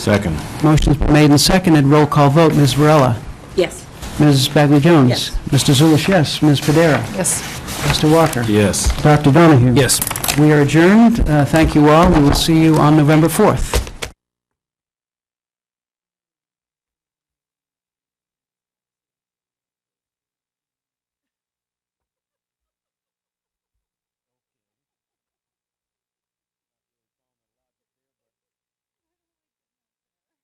Second. Motion's been made and seconded, roll call vote, Ms. Varela. Yes. Ms. Bagley Jones. Yes. Mr. Zulish, yes. Ms. Padera. Yes. Mr. Walker. Yes. Dr. Donahue. Yes. We are adjourned. Uh, Thank you all. We will see you on November 4th.